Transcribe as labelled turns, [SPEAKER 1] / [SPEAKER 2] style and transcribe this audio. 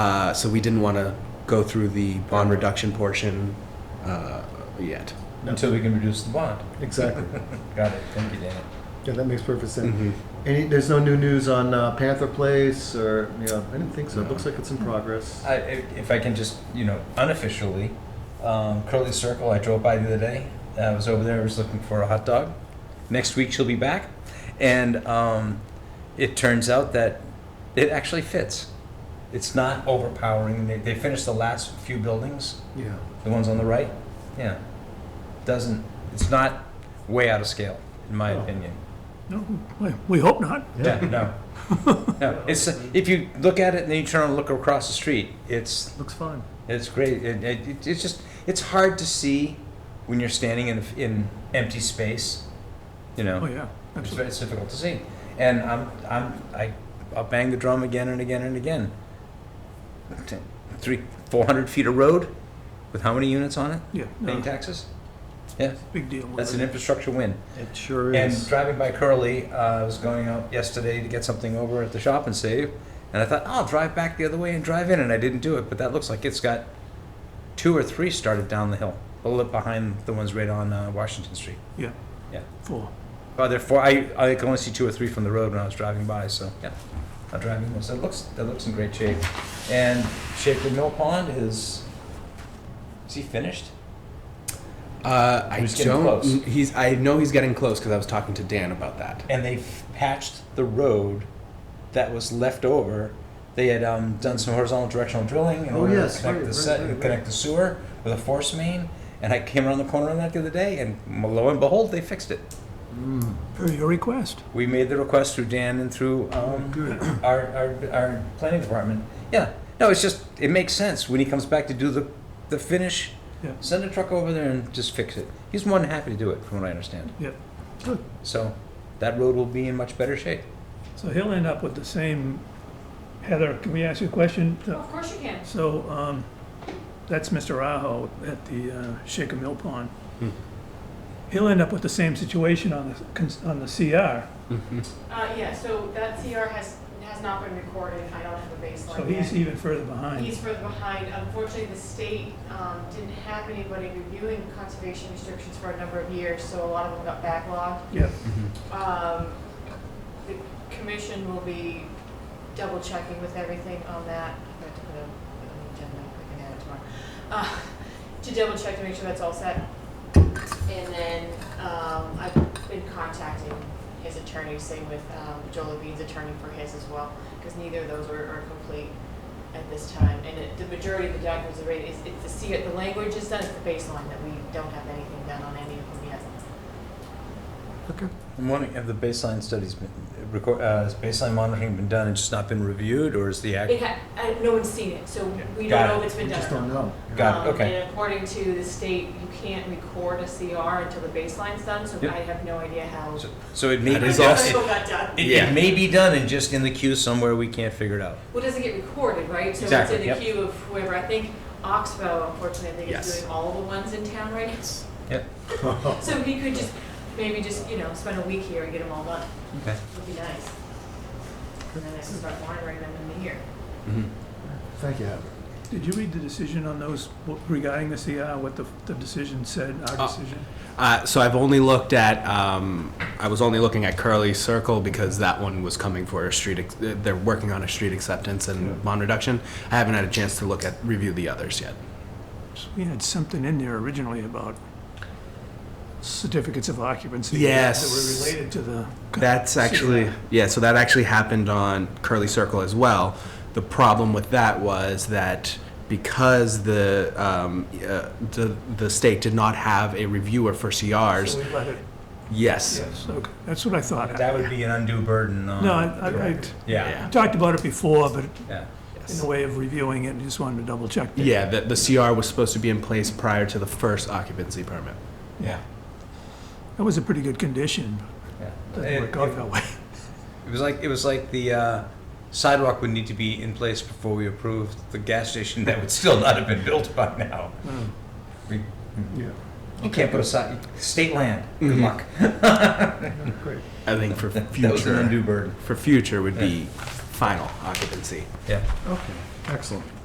[SPEAKER 1] Uh, so we didn't want to go through the bond reduction portion uh, yet.
[SPEAKER 2] Until we can reduce the bond.
[SPEAKER 3] Exactly.
[SPEAKER 2] Got it, thank you, Danny.
[SPEAKER 3] Yeah, that makes perfect sense.
[SPEAKER 1] Mhm.
[SPEAKER 3] Any, there's no new news on uh, Panther Place or, you know, I didn't think so. It looks like it's in progress.
[SPEAKER 2] I, if, if I can just, you know, unofficially, um, Curly Circle, I drove by the other day. I was over there, I was looking for a hot dog. Next week she'll be back. And um, it turns out that it actually fits. It's not overpowering. They, they finished the last few buildings,
[SPEAKER 3] Yeah.
[SPEAKER 2] the ones on the right. Yeah. Doesn't, it's not way out of scale, in my
[SPEAKER 3] Oh.
[SPEAKER 2] opinion.
[SPEAKER 4] No, we- we hope not.
[SPEAKER 2] Yeah, no. No, it's, if you look at it and then you turn and look across the street, it's
[SPEAKER 3] Looks fine.
[SPEAKER 2] it's great. It, it, it- it's just it's hard to see when you're standing in in empty space. You know,
[SPEAKER 4] Oh, yeah,
[SPEAKER 2] it's,
[SPEAKER 4] absolutely.
[SPEAKER 2] very- it's difficult to see. And I'm I'm I I'll bang the drum again and again and again. T- Three four hundred feet of road, with how many units on it?
[SPEAKER 4] Yeah,
[SPEAKER 2] Paying
[SPEAKER 4] no,
[SPEAKER 2] taxes. Yeah,
[SPEAKER 4] big deal.
[SPEAKER 2] that's an infrastructure win.
[SPEAKER 3] It sure
[SPEAKER 2] And
[SPEAKER 3] is.
[SPEAKER 2] driving by Curly, uh, I was going out yesterday to get something over at the shop and save, and I thought "Oh, I'll drive back the other way and drive in, and I didn't do it. But that looks like it's got two or three started down the hill, a little behind the ones right on uh, Washington Street.
[SPEAKER 4] Yeah.
[SPEAKER 2] Yeah.
[SPEAKER 4] Four.
[SPEAKER 2] Oh, there are four. I I can only see two or three from the road when I was driving by. So yeah, I'm driving this. It looks that looks in great shape, and Shaker Mill Pond is. Is he finished?
[SPEAKER 1] Uh, I
[SPEAKER 2] He's getting
[SPEAKER 1] don't.
[SPEAKER 2] close.
[SPEAKER 1] He's. I know he's getting close because I was talking to Dan about that.
[SPEAKER 2] and they patched the road that was left over. They had um, done some horizontal directional drilling in
[SPEAKER 3] Oh,
[SPEAKER 2] order
[SPEAKER 3] yes,
[SPEAKER 2] to connect,
[SPEAKER 3] right,
[SPEAKER 2] the
[SPEAKER 3] right,
[SPEAKER 2] se-
[SPEAKER 3] right, right.
[SPEAKER 2] connect the sewer with a force main. And I came around the corner on that the other day, and lo and behold, they fixed it.
[SPEAKER 4] Per your request.
[SPEAKER 2] We made the request through Dan and through
[SPEAKER 3] Oh,
[SPEAKER 2] um, our, our, our planning department. Yeah, no, it's just, it makes sense. When he comes back to do the, the finish,
[SPEAKER 4] Yeah.
[SPEAKER 2] send a truck over there and just fix it. He's more than happy to do it, from what I understand.
[SPEAKER 4] Yeah.
[SPEAKER 2] So that road will be in much better shape.
[SPEAKER 4] So he'll end up with the same, Heather, can we ask you a question? The-
[SPEAKER 5] Of course you can.
[SPEAKER 4] So, um, that's Mr. Aho at the uh, Shaker Mill Pond.
[SPEAKER 2] Hmm.
[SPEAKER 4] He'll end up with the same situation on the, cons- on the CR.
[SPEAKER 2] Mm-hmm.
[SPEAKER 5] Uh, yeah, so that CR has, has not been recorded, I don't have a baseline
[SPEAKER 4] So he's
[SPEAKER 5] yet.
[SPEAKER 4] even further behind.
[SPEAKER 5] He's further behind, unfortunately, the state, um, didn't have anybody reviewing conservation restrictions for a number of years, so a lot of them got backlogged.
[SPEAKER 4] Yeah,
[SPEAKER 2] Mm-hmm.
[SPEAKER 5] Um, the commission will be double checking with everything on that. I forgot to put it on the agenda, I can add it tomorrow. Uh, To double check to make sure that's all set. And then, um, I've been contacting his attorney, same with, um, Joel Levine's attorney for his as well, because neither of those are, are complete at this time. And it, the majority of the documents are ready, it's, it's the, C- the language is done, it's the baseline, that we don't have anything done on any of them yet.
[SPEAKER 3] Okay.
[SPEAKER 2] I'm wondering, have the baseline studies been, record, uh, has baseline monitoring been done and just not been reviewed, or is the
[SPEAKER 5] It
[SPEAKER 2] act?
[SPEAKER 5] ha, I, no one's seen it, so we
[SPEAKER 2] Got
[SPEAKER 5] don't know
[SPEAKER 2] it.
[SPEAKER 5] if it's been
[SPEAKER 3] We
[SPEAKER 5] done.
[SPEAKER 3] just don't know.
[SPEAKER 2] Got it,
[SPEAKER 5] Um,
[SPEAKER 2] okay.
[SPEAKER 5] And according to the state, you can't record a CR until the baseline's done, so
[SPEAKER 2] Yep.
[SPEAKER 5] I have no idea how.
[SPEAKER 2] So- So it may,
[SPEAKER 1] That
[SPEAKER 2] be
[SPEAKER 1] is
[SPEAKER 5] How
[SPEAKER 2] done-
[SPEAKER 1] also-
[SPEAKER 5] It got done.
[SPEAKER 2] it,
[SPEAKER 1] Yeah.
[SPEAKER 2] it may be done and just in the queue somewhere we can't figure it out.
[SPEAKER 5] Well, it doesn't get recorded, right?
[SPEAKER 2] Exactly,
[SPEAKER 5] So
[SPEAKER 2] yep.
[SPEAKER 5] it's in the queue of whoever, I think Oxbow unfortunately, I think
[SPEAKER 1] Yes.
[SPEAKER 5] is doing all of the ones in town right now.
[SPEAKER 2] Yep.
[SPEAKER 5] So he could just, maybe just, you know, spend a week here and get them all done,
[SPEAKER 2] Okay.
[SPEAKER 5] would be nice. And then I can start monitoring them in the year.
[SPEAKER 1] Mhm.
[SPEAKER 3] Thank you, Heather.
[SPEAKER 4] did you read the decision on those regarding the CR, what the, the decision said,
[SPEAKER 1] Uh,
[SPEAKER 4] our decision?
[SPEAKER 1] Uh, so I've only looked at. Um, I was only looking at Curly Circle because that one was coming for a street. Ex- they're working on a street acceptance and bond reduction. I haven't had a chance to look at review the others yet.
[SPEAKER 4] We had something in there originally about certificates of occupancy.
[SPEAKER 1] Yes.
[SPEAKER 4] That were related to the.
[SPEAKER 1] That's actually yeah. So that actually happened on Curly Circle as well. The problem with that was that because the um, uh, the the state did not have a reviewer for CRs.
[SPEAKER 4] So we let it-
[SPEAKER 1] Yes.
[SPEAKER 4] yes, okay, that's what I thought.
[SPEAKER 2] That would be an undue burden on.
[SPEAKER 4] No, I- I, I
[SPEAKER 2] Yeah,
[SPEAKER 4] talked about it before, but
[SPEAKER 2] yeah.
[SPEAKER 4] in the way of reviewing it, I just wanted to double check. that.
[SPEAKER 1] Yeah. The, the CR was supposed to be in place prior to the first occupancy permit.
[SPEAKER 2] Yeah.
[SPEAKER 4] That was a pretty good condition.
[SPEAKER 2] Yeah.
[SPEAKER 4] Doesn't
[SPEAKER 2] It
[SPEAKER 4] work out that way.
[SPEAKER 2] it was like, it was like the uh, sidewalk would need to be in place before we approved the gas station that would still not have been built by now.
[SPEAKER 4] Hmm.
[SPEAKER 2] We,
[SPEAKER 3] Yeah.
[SPEAKER 2] you can't put a side, state land, good
[SPEAKER 1] Mhm.
[SPEAKER 2] luck.
[SPEAKER 3] Great.
[SPEAKER 1] I think for
[SPEAKER 2] That was an
[SPEAKER 1] future
[SPEAKER 2] undue burden.
[SPEAKER 1] for future would be
[SPEAKER 6] final occupancy.
[SPEAKER 7] Yeah.
[SPEAKER 1] Okay, excellent.